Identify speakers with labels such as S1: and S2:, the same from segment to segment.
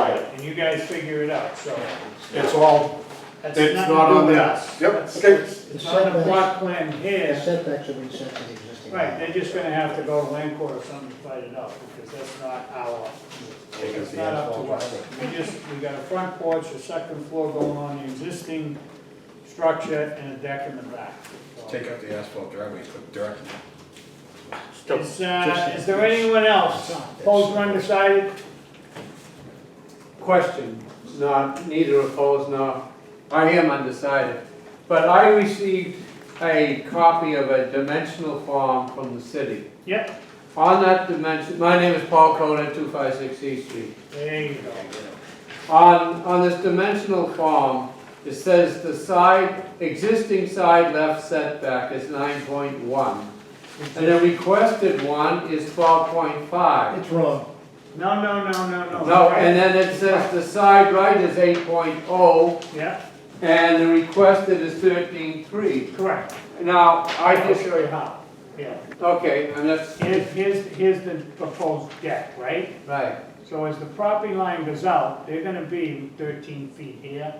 S1: and you guys figure it out, so it's all, that's
S2: It's
S1: nothing
S2: not
S1: to do
S2: on
S1: with
S2: that.
S1: us.
S2: Yep,
S1: That's-
S2: okay.
S1: It's it's not on the block plan
S3: The
S1: here,
S3: setbacks are being set to the existing.
S1: right, they're just gonna have to go to land court or something to fight it out, because that's not our, it's not up to us. We just, we got a front porch, a second floor going on the existing structure, and a deck in the back. so.
S4: Take out the asphalt driveway, and put dirt in it.
S1: Is, uh, is there anyone else? Opposed or undecided?
S2: Question, not, neither opposed nor, I am undecided. But I received a copy of a dimensional form from the city.
S1: Yep,
S2: On that dimension, my name is Paul Coda, two five six East Street.
S1: there you go.
S2: On, on this dimensional form, it says the side, existing side left setback is nine point one. And the requested one is twelve point five.
S3: It's wrong.
S1: No, no, no, no, no.
S2: No, and then it says the side right is eight oh,
S1: Yeah,
S2: and the requested is thirteen three.
S1: correct.
S2: Now, I
S1: I will
S2: just,
S1: show you how. Yeah,
S2: okay, and that's,
S1: here's, here's, here's the proposed deck, right?
S2: right,
S1: So as the property line goes out, they're gonna be thirteen feet here,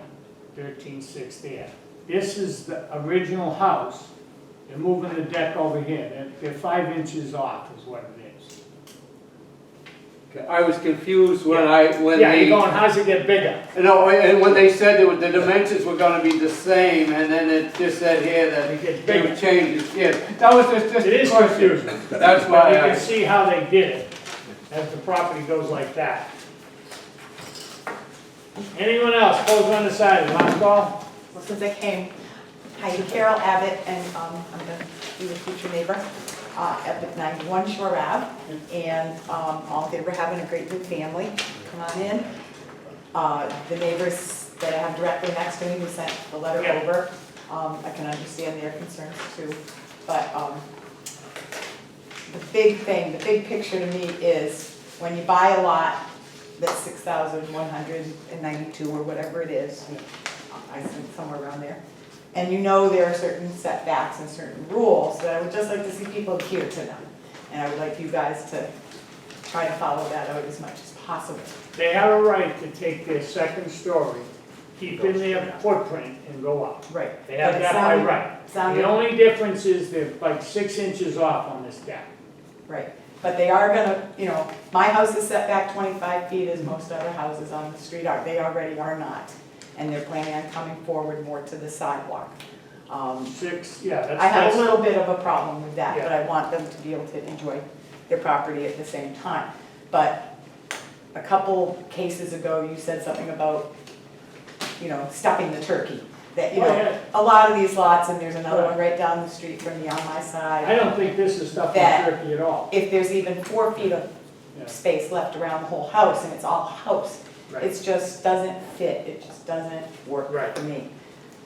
S1: thirteen six there. This is the original house, they're moving the deck over here, they're, they're five inches off is what it is.
S2: I was confused when I, when
S1: Yeah,
S2: they,
S1: you're going, how's it get bigger?
S2: no, and when they said that the dimensions were gonna be the same, and then it just said here that
S1: It gets
S2: they
S1: bigger.
S2: were changing, yeah, that was just, just
S1: It
S2: a
S1: is
S2: question.
S1: confusing,
S2: That's
S1: but
S2: why
S1: you can
S2: I,
S1: see how they did it, as the property goes like that. Anyone else, pose on the side, last call?
S5: Well, since I came, hi, Carol Abbott, and um, I'm going to be the future neighbor uh, at the 91 Shore Ave. And um, all good, we're having a great big family. Come on in. Uh, The neighbors that I have directly next to me who sent the letter
S1: Yeah.
S5: over, um, I can understand their concerns too. But um, the big thing, the big picture to me is when you buy a lot that's 6,192 or whatever it is, I think somewhere around there. And you know there are certain setbacks and certain rules that I would just like to see people adhere to them. And I would like you guys to try to follow that out as much as possible.
S1: They have a right to take their second story, keep in their footprint and go up.
S5: Right.
S1: They have that by right. The
S5: Sounded,
S1: only difference is they're like six inches off on this deck.
S5: right. But they are gonna, you know, my house is set back twenty-five feet as most other houses on the street are. They already are not. And they're planning on coming forward more to the sidewalk. Um,
S1: Six, yeah, that's.
S5: I have a
S1: that's-
S5: little bit of a problem with that, but
S1: Yeah.
S5: I want them to be able to enjoy their property at the same time. But a couple cases ago, you said something about, you know, stuffing the turkey. That, you
S1: Oh,
S5: know,
S1: yeah.
S5: a lot of these lots, and there's another one
S1: Right.
S5: right down the street from me on my
S1: I
S5: side.
S1: don't think this is stuff in
S5: That-
S1: Turkey at all.
S5: If there's even four feet of
S1: Yeah.
S5: space left around the whole house, and it's all house,
S1: Right.
S5: it's just doesn't fit, it just doesn't work
S1: Right.
S5: for me.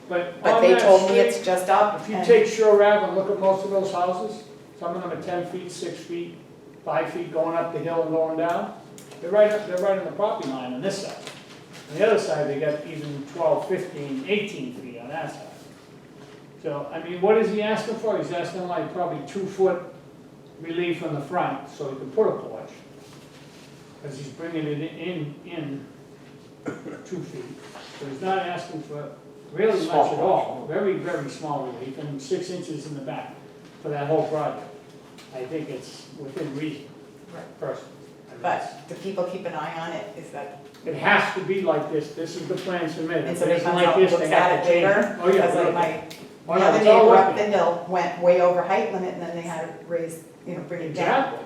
S1: But
S5: But
S1: on
S5: they
S1: that
S5: told me
S1: street,
S5: it's just up.
S1: If you
S5: and-
S1: take Shore Ave and look at most of those houses, some of them are ten feet, six feet, five feet going up the hill and going down. They're right, up- they're right on the property line on this side. On the other side, they got even 12, 15, 18 feet on that side. So, I mean, what is he asking for? He's asking like probably two foot relief on the front, so he can put a porch. Cause he's bringing it in, in two feet. So he's not asking for really much at all, very, very small relief, and six inches in the back for that whole project. I think it's within reason,
S5: Right.
S1: personally. I mean,
S5: But do people keep an eye on it? Is that
S1: It has to be like this, this is the plan submitted.
S5: And
S1: If
S5: so
S1: it
S5: they
S1: isn't
S5: comes
S1: like
S5: out,
S1: this,
S5: looks
S1: they have
S5: at
S1: to
S5: it
S1: change it.
S5: later,
S1: Oh, yeah.
S5: because like
S1: look.
S5: my, the
S1: Oh, no,
S5: other
S1: it's all
S5: neighbor
S1: working.
S5: up the hill went way over height limit, and then they had to raise, you know, bring it down.
S1: Exactly.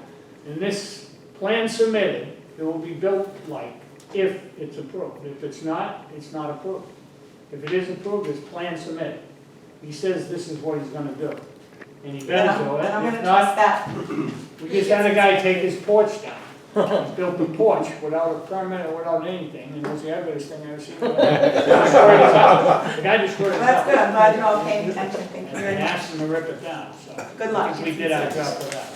S1: And this plan submitted, it will be built like if it's approved. If it's not, it's not approved. If it is approved, it's plan submitted. He says this is what he's gonna do. And he
S5: And
S1: better
S5: I'm,
S1: do
S5: and I'm
S1: it.
S5: gonna
S1: If not,
S5: trust that,
S1: we just had a guy take his porch down. He Built a porch without a permit or without anything, and it was the ugliest thing I've ever seen. The guy destroyed his house. The guy destroyed his
S5: Well, that's
S1: house.
S5: good, I'm glad you're all paying attention,
S1: And
S5: thank you very
S1: and
S5: much.
S1: asked him to rip it down, so.
S5: Good luck.
S1: I think We did our job for that.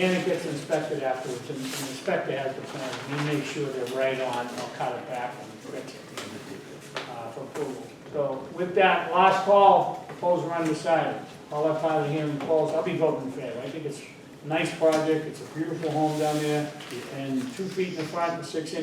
S1: And it gets inspected afterwards, and the inspector has the plan, he makes sure they're right on, they'll cut it back and fix it uh, for approval. So with that, last call, polls are undecided. All that part of the hearing polls, I'll be voting in favor. I think it's a nice project, it's a beautiful home down there, and two feet in the front and six inches